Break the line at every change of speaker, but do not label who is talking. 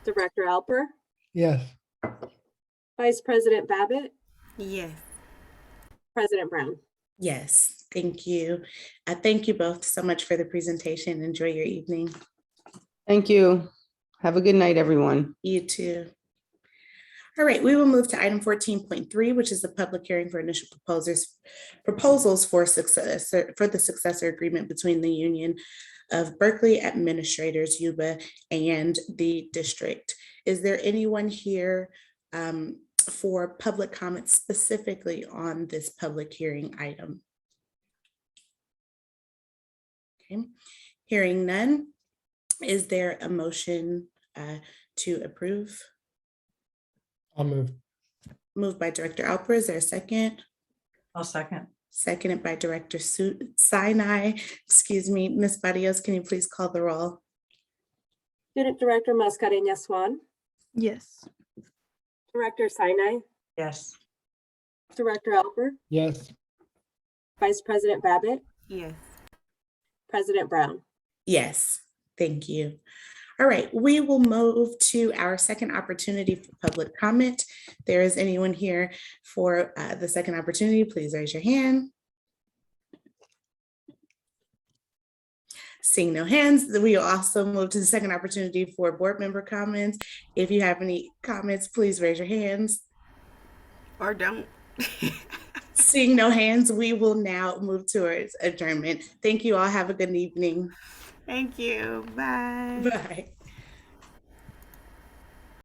Director Alper,
Yes.
Vice President Babbitt,
Yes.
President Brown.
Yes, thank you. I thank you both so much for the presentation. Enjoy your evening.
Thank you. Have a good night, everyone.
You too. All right, we will move to item fourteen point three, which is the public hearing for initial proposers, proposals for success, for the successor agreement between the Union of Berkeley Administrators, Yuba, and the district. Is there anyone here um, for public comments specifically on this public hearing item? Okay, hearing none. Is there a motion uh, to approve.
I'll move.
Moved by Director Alper, is there a second?
I'll second.
Seconded by Director Su- Sinai, excuse me, Ms. Barrios, can you please call the roll?
Student Director Mascareñas Swan,
Yes.
Director Sinai,
Yes.
Director Alper,
Yes.
Vice President Babbitt,
Yes.
President Brown.
Yes, thank you. All right, we will move to our second opportunity for public comment. There is anyone here for uh, the second opportunity, please raise your hand. Seeing no hands, we will also move to the second opportunity for board member comments. If you have any comments, please raise your hands.
Or don't.
Seeing no hands, we will now move towards adjournment. Thank you all. Have a good evening.
Thank you. Bye.
Bye.